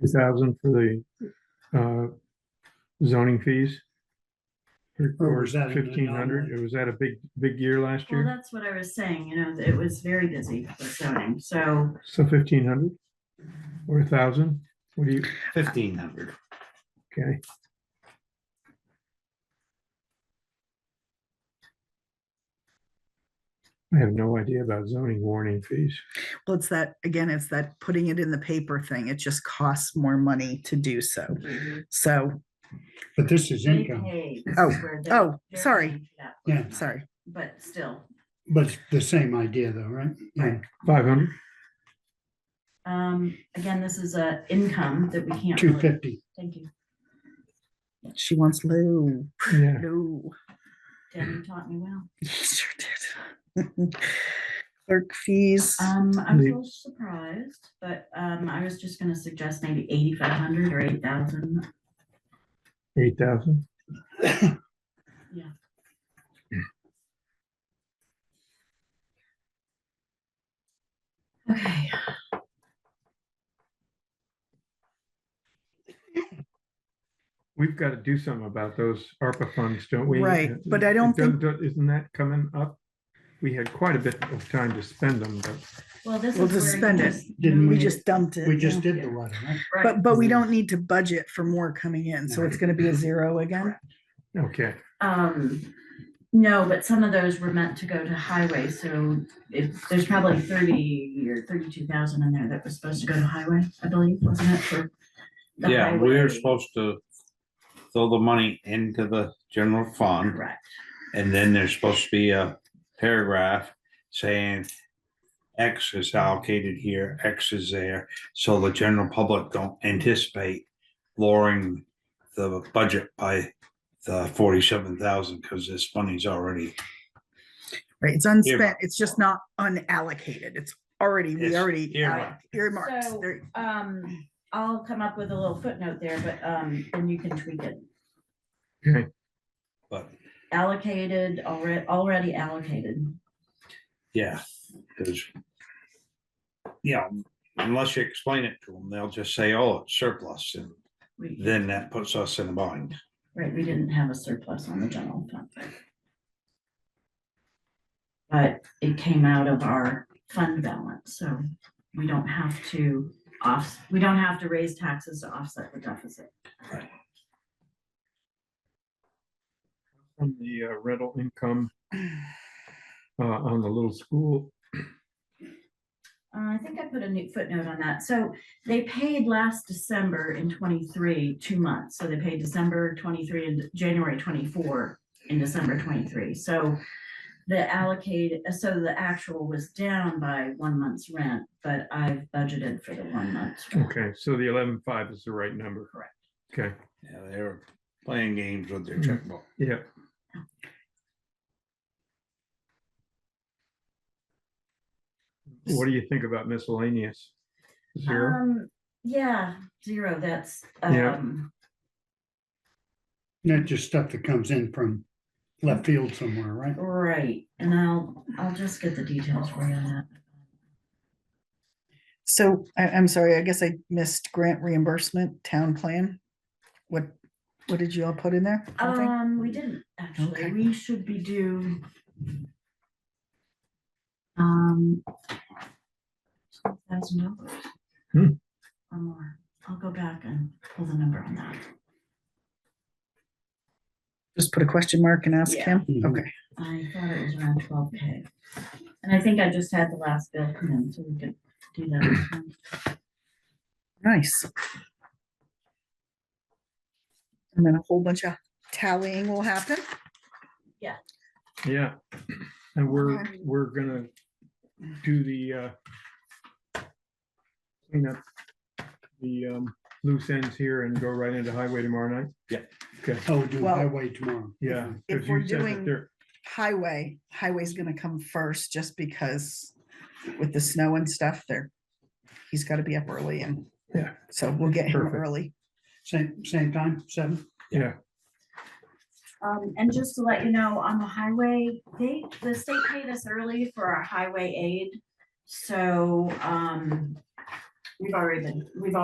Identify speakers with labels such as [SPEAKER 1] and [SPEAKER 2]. [SPEAKER 1] two thousand for the, uh, zoning fees? Or-
[SPEAKER 2] Or
[SPEAKER 1] Or
[SPEAKER 2] was that an
[SPEAKER 1] fifteen hundred,
[SPEAKER 2] anomaly?
[SPEAKER 1] was that a big, big year last
[SPEAKER 3] Well,
[SPEAKER 1] year?
[SPEAKER 3] that's what I was saying, you know, that it was very busy for zoning, so
[SPEAKER 1] So fifteen hundred? Or a thousand? What do you,
[SPEAKER 2] Fifteen hundred.
[SPEAKER 1] okay, I have no idea about zoning warning fees.
[SPEAKER 4] Well, it's that, again, it's that putting it in the paper thing. It just costs more money to do so. So,
[SPEAKER 2] But this is
[SPEAKER 3] they
[SPEAKER 2] income,
[SPEAKER 3] pay.
[SPEAKER 4] Oh,
[SPEAKER 3] where they're-
[SPEAKER 4] oh,
[SPEAKER 3] they're
[SPEAKER 4] sorry.
[SPEAKER 3] paying for that.
[SPEAKER 2] yeah,
[SPEAKER 4] sorry,
[SPEAKER 3] But still,
[SPEAKER 2] but it's the same idea though, right? Yeah.
[SPEAKER 1] Five hundred?
[SPEAKER 3] um, again, this is a income that we can't
[SPEAKER 2] Two
[SPEAKER 3] really,
[SPEAKER 2] fifty,
[SPEAKER 3] thank you.
[SPEAKER 4] she wants low,
[SPEAKER 1] Yeah,
[SPEAKER 4] low.
[SPEAKER 3] Dan, you taught me well.
[SPEAKER 4] Sure did. Clerk fees.
[SPEAKER 3] Um, I'm a
[SPEAKER 1] The-
[SPEAKER 3] little surprised, but, um, I was just gonna suggest maybe eighty-five hundred or eight thousand.
[SPEAKER 1] eight thousand.
[SPEAKER 3] Okay.
[SPEAKER 1] We've got to do something about those ARPA funds, don't we?
[SPEAKER 4] Right, but I don't think-
[SPEAKER 1] Don't- Isn't that coming up? We had quite a bit of time to spend them, but
[SPEAKER 3] Well, this is.
[SPEAKER 4] We'll
[SPEAKER 3] where
[SPEAKER 4] just
[SPEAKER 3] you
[SPEAKER 4] spend it.
[SPEAKER 3] just-
[SPEAKER 2] Didn't
[SPEAKER 4] We
[SPEAKER 2] we-
[SPEAKER 4] just dumped it.
[SPEAKER 2] we just
[SPEAKER 4] yeah.
[SPEAKER 2] did the letter, right?
[SPEAKER 3] Right.
[SPEAKER 4] But, but we don't need to budget for more coming in. So it's going to be a zero again.
[SPEAKER 1] okay,
[SPEAKER 3] Um, no, but some of those were meant to go to highway, so if, there's probably thirty or thirty-two thousand in there that was supposed to go to highway, I believe, wasn't it, for? the
[SPEAKER 5] Yeah, we're
[SPEAKER 3] highway?
[SPEAKER 5] supposed to throw the money into the general fund,
[SPEAKER 3] Correct,
[SPEAKER 5] and then there's supposed to be a paragraph saying X is allocated here, X is there, so the general public don't anticipate lowering the budget by the forty-seven thousand, because this money's already,
[SPEAKER 4] Right? It's unspent. It's just not unallocated. It's already, we
[SPEAKER 5] It's
[SPEAKER 4] already alloc-
[SPEAKER 5] earmarked.
[SPEAKER 4] earmarked.
[SPEAKER 3] So-
[SPEAKER 4] There-
[SPEAKER 3] um, I'll come up with a little footnote there, but, um, then you can tweak it.
[SPEAKER 1] okay,
[SPEAKER 5] but,
[SPEAKER 3] Allocated, already, already allocated,
[SPEAKER 5] yeah, because yeah, unless you explain it to them, they'll just say, oh, it's surplus, and
[SPEAKER 3] we,
[SPEAKER 5] then that puts us in a bind.
[SPEAKER 3] right, we didn't have a surplus on the general fund. But it came out of our fund balance, so we don't have to off, we don't have to raise taxes to offset the deficit.
[SPEAKER 1] on the uh, rental income uh, on the little school,
[SPEAKER 3] Uh, I think I put a new footnote on that. So they paid last December in twenty-three, two months. So they paid December twenty-three and January twenty-four in December twenty-three. So the allocated, so the actual was down by one month's rent, but I've budgeted for the one month's rent.
[SPEAKER 1] okay, so the eleven-five is the right number.
[SPEAKER 3] Correct.
[SPEAKER 1] Okay,
[SPEAKER 5] Yeah, they were playing games with their
[SPEAKER 1] Mm.
[SPEAKER 5] checkbook.
[SPEAKER 1] yeah, what do you think about miscellaneous? Zero,
[SPEAKER 3] Um, yeah, zero, that's,
[SPEAKER 1] Yeah.
[SPEAKER 3] um,
[SPEAKER 2] Not just stuff that comes in from left field somewhere, right?
[SPEAKER 3] right. And I'll, I'll just get the details for you on that.
[SPEAKER 4] So I, I'm sorry, I guess I missed grant reimbursement, town plan. What, what did you all put in there? Nothing?
[SPEAKER 3] Um, we didn't, actually,
[SPEAKER 4] Okay.
[SPEAKER 3] we should be due. Um. Thousand dollars.
[SPEAKER 1] Hmm.
[SPEAKER 3] Or more, I'll go back and pull the number on that.
[SPEAKER 4] Just put a question mark and ask
[SPEAKER 3] Yeah.
[SPEAKER 4] him?
[SPEAKER 2] Mhm.
[SPEAKER 4] Okay,
[SPEAKER 3] I thought it was around twelve K. And I think I just had the last bill come in, so we could do that.
[SPEAKER 4] nice. And then a whole bunch of tallying will happen.
[SPEAKER 1] yeah, and we're,
[SPEAKER 4] Okay.
[SPEAKER 1] we're gonna do the uh clean up the um loose ends here and go right into highway tomorrow night?
[SPEAKER 2] Oh, we'll do
[SPEAKER 4] Well-
[SPEAKER 2] highway tomorrow.
[SPEAKER 1] Yeah.
[SPEAKER 4] If
[SPEAKER 1] 'cause
[SPEAKER 4] we're
[SPEAKER 1] you said that
[SPEAKER 4] doing-
[SPEAKER 1] there-
[SPEAKER 4] Highway, highway's gonna come first just because with the snow and stuff there. He's gotta be up early and.
[SPEAKER 1] Yeah.
[SPEAKER 4] So we'll get him
[SPEAKER 1] Perfect.
[SPEAKER 4] early.
[SPEAKER 2] Same, same time, seven?
[SPEAKER 1] Yeah,
[SPEAKER 3] Um, and just to let you know, on the highway, they, the state paid us early for our highway aid. So, um, we've already been, we've already